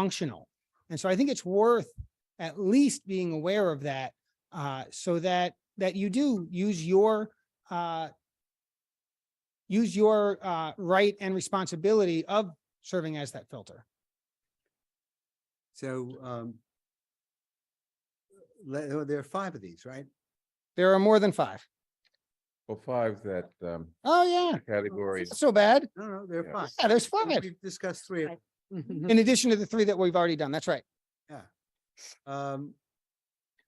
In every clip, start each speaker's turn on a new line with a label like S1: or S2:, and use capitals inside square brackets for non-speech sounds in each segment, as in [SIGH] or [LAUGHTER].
S1: functional. And so I think it's worth at least being aware of that uh, so that that you do use your uh, use your uh, right and responsibility of serving as that filter.
S2: So, um, le- oh, there are five of these, right?
S1: There are more than five.
S3: Well, five that um
S1: Oh, yeah,
S3: category,
S4: [LAUGHS]
S1: not so bad.
S2: No, no, there are
S3: Yeah.
S2: five.
S1: Yeah, there's
S2: Well,
S1: five
S2: We've discussed three. of-
S1: [LAUGHS]
S4: Mm-hmm.
S2: Mm-hmm.
S1: in addition to the three that we've already done. That's right.
S2: Um,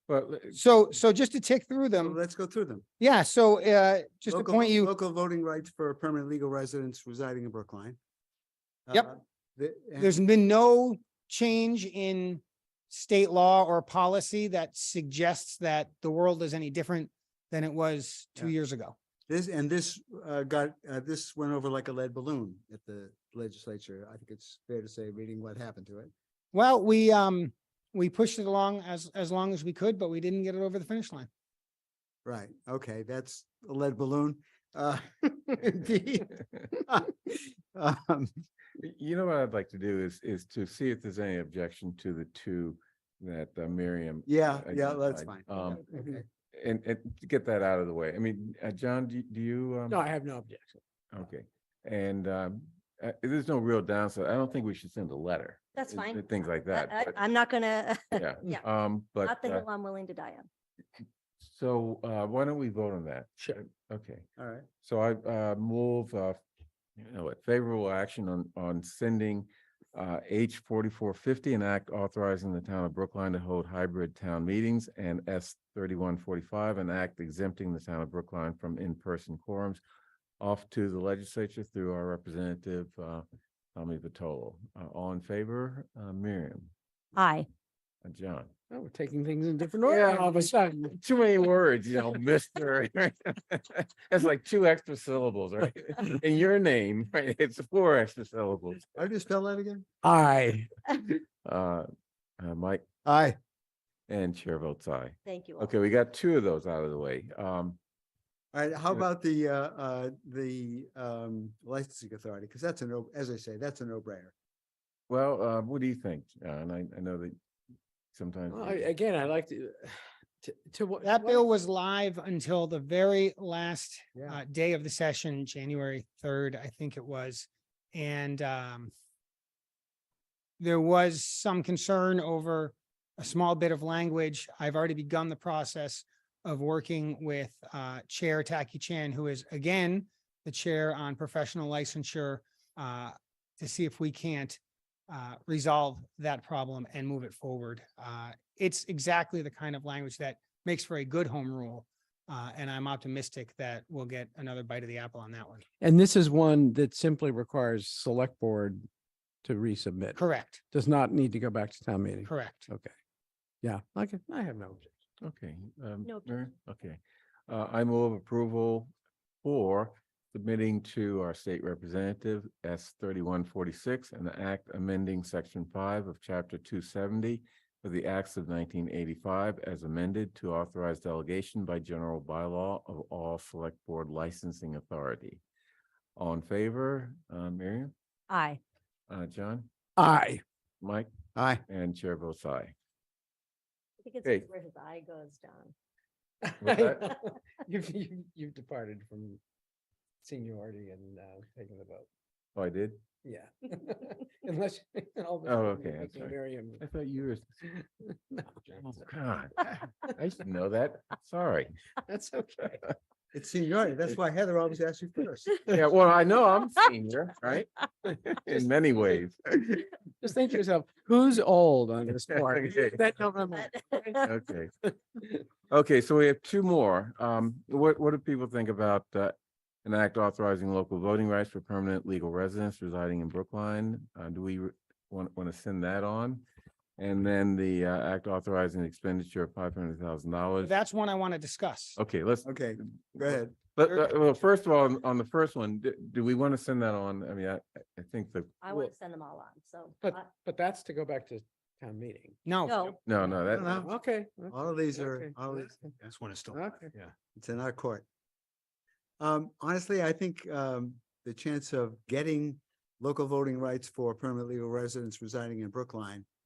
S3: but le- [LAUGHS]
S1: So so just to tick through
S2: so
S1: them.
S2: let's go through them.
S1: Yeah, so uh, Um, just to
S2: Local-
S1: point you,
S2: Local voting rights for permanent legal residents residing in Brookline.
S1: Yep.
S2: Uh, the- and-
S1: there's been no change in state law or policy that suggests that the world is any different than it was two
S2: Yeah.
S1: years ago.
S2: This, and this, uh, got, uh, this went over like a lead balloon at the legislature. I think it's fair to say, reading what happened to it.
S1: Well, we um, we pushed it along as as long as we could, but we didn't get it over the finish line.
S2: Right, okay, that's a lead balloon. Uh, [LAUGHS] indeed. Um,
S3: y- you know what I'd like to do is is to see if there's any objection to the two that uh, Miriam.
S2: Yeah,
S3: uh,
S2: yeah, that's fine.
S3: identified. Um,
S2: Okay.
S3: and and to get that out of the way. I mean, uh, John, do do you? um,
S5: No, I have no objection.
S3: Okay, and um, uh, there's no real downside. I don't think we should send a letter.
S4: That's
S3: and-
S4: fine.
S3: and Things like
S4: I-
S3: that.
S4: I, [LAUGHS]
S3: but-
S4: I'm not gonna,
S3: Yeah,
S4: yeah,
S3: um, but
S4: not the
S3: uh,
S4: hill I'm willing to die on.
S3: so uh, why don't we vote on that?
S5: Sure.
S3: Okay.
S2: All right,
S3: So I uh move uh, you know, what, favorable action on on sending uh H forty-four fifty, an act authorizing the town of Brookline to hold hybrid town meetings and S thirty-one forty-five, an act exempting the town of Brookline from in-person quorums off to the legislature through our representative uh Tommy Vitolo. Uh, all in favor, uh Miriam,
S4: Aye.
S3: uh, John.
S5: Oh, We're taking things in different order
S3: Yeah.
S5: all of a sudden.
S3: Too many words, you know, mister. right? [LAUGHS] That's like two extra syllables,
S5: [LAUGHS]
S3: right? In your name, right? It's four extra syllables.
S2: how do you spell that again?
S5: Aye.
S3: Uh, uh, Mike
S2: Aye.
S3: and chair votes aye.
S4: Thank you. all.
S3: Okay, we got two of those out of the way. Um,
S2: All right, how
S3: Yeah.
S2: about the, uh, uh, the, um, licensing authority? Because that's a no, as I say, that's a no-brainer.
S3: well, uh, what do you think? John? I, I know that sometimes.
S5: Well, I-
S3: we-
S5: Again, I like to, [SIGHS] to, to what?
S1: That
S5: what-
S1: bill was live until the very last
S2: Yeah,
S1: uh, day of the session, January third, I think it was. And um, there was some concern over a small bit of language. I've already begun the process of working with uh, Chair Taki Chan, who is again the chair on professional licensure, uh, to see if we can't uh, resolve that problem and move it forward. Uh, It's exactly the kind of language that makes for a good home rule. Uh, and I'm optimistic that we'll get another bite of the apple on that one.
S5: And this is one that simply requires select board to resubmit.
S1: Correct,
S5: Does not need to go back to town meeting.
S1: correct.
S5: Okay. Yeah, okay, I have no objection.
S3: Okay, um,
S4: No
S3: Mary? okay. Uh, I move approval for submitting to our state representative S thirty-one forty-six an act amending section five of chapter two seventy of the acts of nineteen eighty-five as amended to authorize delegation by general bylaw of all select board licensing authority. All in favor, uh, Miriam,
S4: Aye.
S3: uh, John,
S5: [LAUGHS] Aye.
S3: Mike,
S2: aye.
S3: and Chair votes aye.
S4: I think it's
S3: Okay.
S4: where his eye goes, John.
S3: Was that-
S5: [LAUGHS] You've, you've- you've departed from seniority and uh, taking the vote.
S3: Oh, I did?
S5: Yeah. [LAUGHS] Unless. all of
S3: Oh,
S5: a sudden
S3: okay,
S5: you're
S3: I'm
S5: making
S3: sorry. [LAUGHS]
S5: Miriam-
S3: I thought you were
S5: [LAUGHS] No,
S3: Oh,
S5: James,
S3: God. [LAUGHS] I used to know that. Sorry.
S5: [LAUGHS] That's okay.
S2: It's seniority. That's why Heather always asks you [LAUGHS] first.
S3: Yeah, well, I know I'm
S5: [LAUGHS]
S3: senior, [LAUGHS] right? In
S5: Just-
S3: many ways.
S5: [LAUGHS]
S3: [LAUGHS]
S5: Just think to yourself, who's old on this board?
S3: Okay.
S5: That don't
S4: [LAUGHS]
S5: remember.
S4: But-
S3: [LAUGHS] Okay. Okay, so we have two more. Um, what, what do people think about, uh, an act authorizing local voting rights for permanent legal residents residing in Brookline? Uh, do we want, want to send that on? And then the, uh, act authorizing expenditure of five hundred thousand dollars.
S1: That's one I want to discuss.
S3: Okay, let's,
S2: Okay, go ahead.
S3: But,
S1: Sure.
S3: uh, well, first of all, on- on the first one, do, do we want to send that on? I mean, I, I think the,
S4: I want to send them all on, so.
S5: But,
S4: I-
S5: but that's to go back to town meeting.
S1: No,
S4: No,
S3: no, no,
S2: don't
S3: that,
S2: know.
S5: Oh, Okay.
S2: All of these are, all these,
S6: This one is still,
S5: Okay.
S6: yeah.
S2: it's in our court. Um, honestly, I think, um, the chance of getting local voting rights for permanent legal residents residing in Brookline